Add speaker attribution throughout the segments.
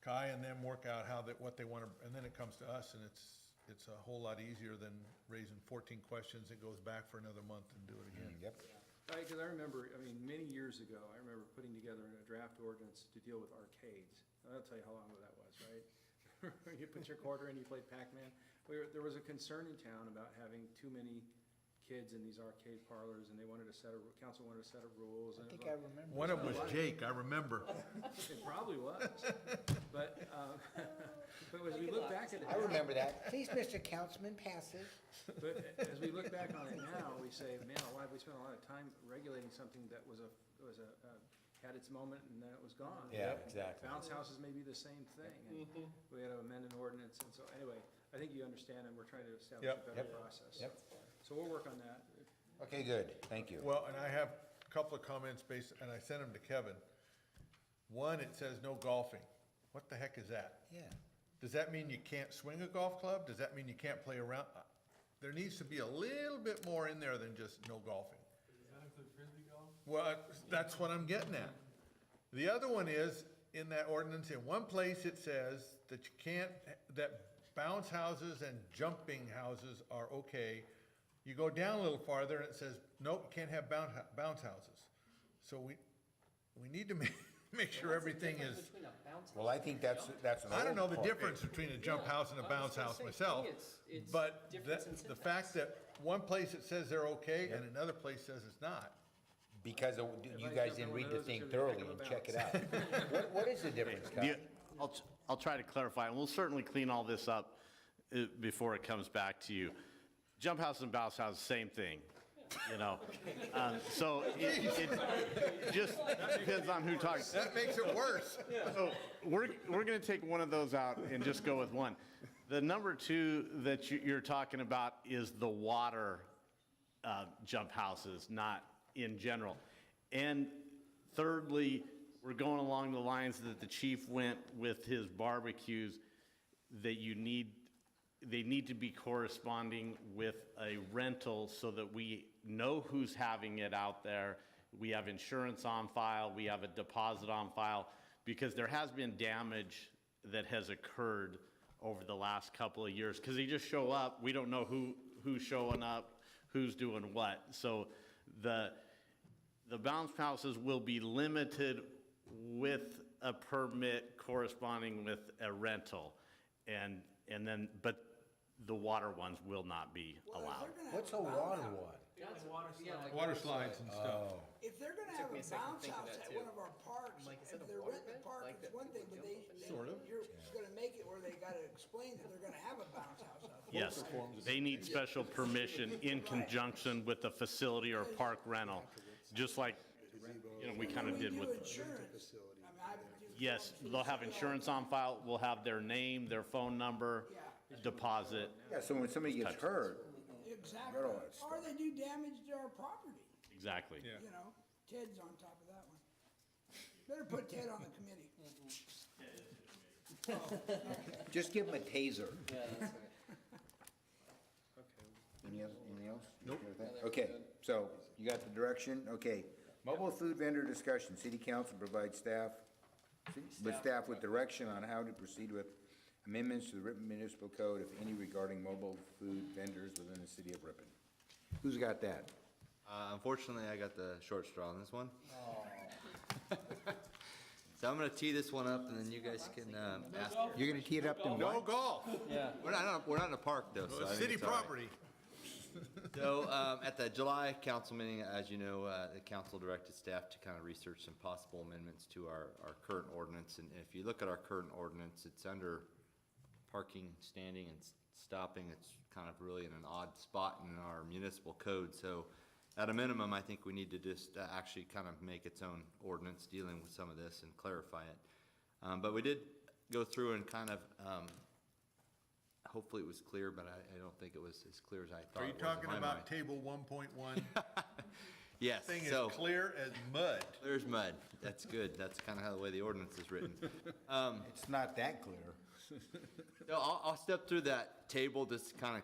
Speaker 1: Kai and them work out how that, what they want to, and then it comes to us and it's, it's a whole lot easier than raising fourteen questions. It goes back for another month and do it again.
Speaker 2: Yep.
Speaker 3: Right, because I remember, I mean, many years ago, I remember putting together a draft ordinance to deal with arcades. And I'll tell you how long ago that was, right? You put your quarter in, you played Pac-Man. We were, there was a concern in town about having too many kids in these arcade parlors, and they wanted a set of, council wanted a set of rules. and
Speaker 4: I
Speaker 3: it
Speaker 4: think
Speaker 3: was
Speaker 4: I
Speaker 3: like-
Speaker 4: remember.
Speaker 1: One of them was Jake, I remember.
Speaker 3: It probably was, but, um, but as we look back at it.
Speaker 4: I remember that. Please, Mr. Councilman, pass it.
Speaker 3: But as we look back on it now, we say, man, why have we spent a lot of time regulating something that was a, was a, uh, had its moment and then it was gone?
Speaker 2: Yeah, exactly.
Speaker 3: Bounce houses may be the same thing, and we had to amend an ordinance, and so, anyway, I think you understand, and we're trying to establish
Speaker 1: Yep.
Speaker 3: a better
Speaker 2: Yep.
Speaker 3: process.
Speaker 2: Yep.
Speaker 3: So we'll work on that.
Speaker 2: Okay, good. Thank you.
Speaker 1: Well, and I have a couple of comments based, and I sent them to Kevin. One, it says no golfing. What the heck is that?
Speaker 4: Yeah.
Speaker 1: Does that mean you can't swing a golf club? Does that mean you can't play around? Uh, There needs to be a little bit more in there than just no golfing. Well, that's what I'm getting at. The other one is, in that ordinance, in one place it says that you can't, that bounce houses and jumping houses are okay. You go down a little farther and it says, nope, you can't have bounce, bounce houses. So we, we need to make, make sure everything is,
Speaker 2: Well, I think that's, that's an
Speaker 1: I don't know
Speaker 2: old
Speaker 1: the
Speaker 2: part.
Speaker 1: difference between a jump house and a
Speaker 5: Yeah, I was
Speaker 1: bounce
Speaker 5: gonna
Speaker 1: house
Speaker 5: say, to me,
Speaker 1: myself.
Speaker 5: it's- it's
Speaker 1: But
Speaker 5: difference
Speaker 1: that-
Speaker 5: in
Speaker 1: the fact that one place it says they're okay and
Speaker 2: Yep.
Speaker 1: another place says it's not.
Speaker 2: Because it- you
Speaker 3: Everybody's
Speaker 2: guys didn't
Speaker 3: got
Speaker 2: read
Speaker 3: one
Speaker 2: the
Speaker 3: of those
Speaker 2: thing
Speaker 3: that should be
Speaker 2: thoroughly and
Speaker 3: picking
Speaker 2: check it
Speaker 3: up
Speaker 2: out. What, what is the difference, Kyle?
Speaker 6: The- I'll, t- I'll try to clarify, and we'll certainly clean all this up uh, before it comes back to you. Jump house and bounce house, same thing, you know? Um, So it- it just depends on who talks.
Speaker 1: That makes it worse.
Speaker 6: So we're, we're going to take one of those out and just go with one. The number two that you- you're talking about is the water uh, jump houses, not in general. And thirdly, we're going along the lines that the chief went with his barbecues, that you need, they need to be corresponding with a rental so that we know who's having it out there. We have insurance on file, we have a deposit on file, because there has been damage that has occurred over the last couple of years, because they just show up, we don't know who, who's showing up, who's doing what. So the, the bounce houses will be limited with a permit corresponding with a rental. And, and then, but the water ones will not be allowed.
Speaker 2: What's a water one?
Speaker 1: Water slides and
Speaker 7: Oh,
Speaker 1: stuff.
Speaker 8: If they're gonna have
Speaker 5: me
Speaker 8: a
Speaker 5: a second to
Speaker 8: bounce
Speaker 5: think of
Speaker 8: house
Speaker 5: that,
Speaker 8: at
Speaker 5: too.
Speaker 8: one of our parks,
Speaker 5: like, is
Speaker 8: if
Speaker 5: it a
Speaker 8: they're
Speaker 5: water
Speaker 8: renting
Speaker 5: pit?
Speaker 8: the park,
Speaker 5: Like
Speaker 8: it's
Speaker 5: that
Speaker 8: one
Speaker 5: they
Speaker 8: thing, but
Speaker 5: jump
Speaker 8: they,
Speaker 5: up and
Speaker 8: they-
Speaker 1: Sort of.
Speaker 8: you're gonna make it where they gotta explain that they're gonna have a bounce house out there.
Speaker 6: Yes, they need special permission in conjunction with the facility or park rental, just like, you know, we kind of
Speaker 8: When we
Speaker 6: did
Speaker 8: do
Speaker 6: with.
Speaker 8: Insurance, I mean, I would do.
Speaker 6: Yes,
Speaker 8: forms for
Speaker 6: they'll have
Speaker 8: the city
Speaker 6: insurance on file, we'll have their name, their phone number,
Speaker 8: "Oh,
Speaker 6: deposit.
Speaker 2: Yeah, so when somebody gets hurt,
Speaker 8: hall.
Speaker 2: Got all that
Speaker 8: Exactly, or they do damage to our property,
Speaker 6: Exactly.
Speaker 1: Yeah.
Speaker 8: you know, Ted's on top of that one. Better put Ted on the committee.
Speaker 2: just give them a taser.
Speaker 3: Okay,
Speaker 2: Any other, anything else? Nope. Okay, so you got the direction? Okay. Mobile food vendor discussion, city council provides staff, with staff with direction on how to proceed with amendments to the Ripon Municipal Code, if any, regarding mobile food vendors within the city of Ripon. Who's got that?
Speaker 7: Uh, unfortunately, I got the short straw on this one. so I'm gonna tee this one up, and then you guys can um, ask.
Speaker 2: You're gonna tee it up to
Speaker 1: No
Speaker 2: what?
Speaker 1: golf,
Speaker 7: We're not, we're not in a park though, so I think
Speaker 1: city
Speaker 7: it's all right.
Speaker 1: property.
Speaker 7: So, um, at the July council meeting, as you know, uh, the council directed staff to kind of research some possible amendments to our, our current ordinance. And if you look at our current ordinance, it's under parking, standing, and s- stopping. It's kind of really in an odd spot in our municipal code. So, at a minimum, I think we need to just uh, actually kind of make its own ordinance dealing with some of this and clarify it. Um, but we did go through and kind of, um, hopefully it was clear, but I, I don't think it was as clear as I thought
Speaker 1: Are you
Speaker 7: it was in my
Speaker 1: talking
Speaker 7: mind.
Speaker 1: about table one point one?
Speaker 7: Yes,
Speaker 1: Thing
Speaker 7: so
Speaker 1: is clear as mud.
Speaker 7: there's mud. That's good. That's kind of how the way the ordinance is written.
Speaker 2: It's not that clear.
Speaker 7: No, I'll, I'll step through that table just to kind of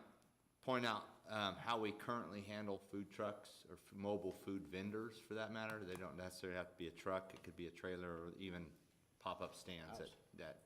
Speaker 7: point out um, how we currently handle food trucks or f- mobile food vendors for that matter. They don't necessarily have to be a truck. It could be a trailer or even pop-up stands that, that